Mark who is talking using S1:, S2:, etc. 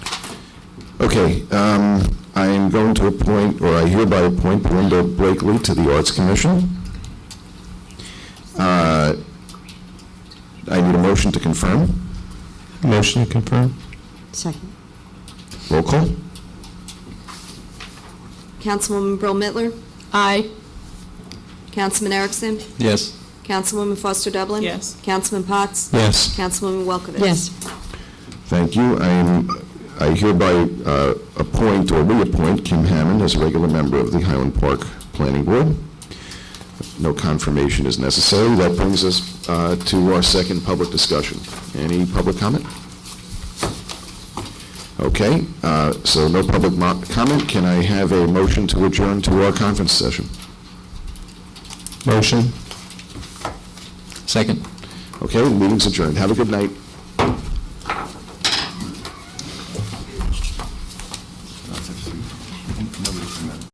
S1: Okay, um, I am going to appoint, or I hereby appoint Belinda Blakely to the Arts Commission. Uh, I need a motion to confirm.
S2: Motion to confirm?
S3: Second.
S1: Roll call?
S4: Councilwoman Brill Mittler,
S3: Aye.
S4: Councilman Erickson,
S2: Yes.
S4: Councilwoman Foster Dublin.
S5: Yes.
S4: Councilman Potts.
S2: Yes.
S4: Councilwoman Welkowitz.
S3: Yes.
S1: Thank you. I am, I hereby uh, appoint or reappoint Kim Hammond as a regular member of the Highland Park Planning Board. No confirmation is necessary. That brings us uh, to our second public discussion. Any public comment? Okay, uh, so no public mo- comment. Can I have a motion to adjourn to our conference session?
S2: Motion? Second.
S1: Okay, meeting's adjourned. Have a good night.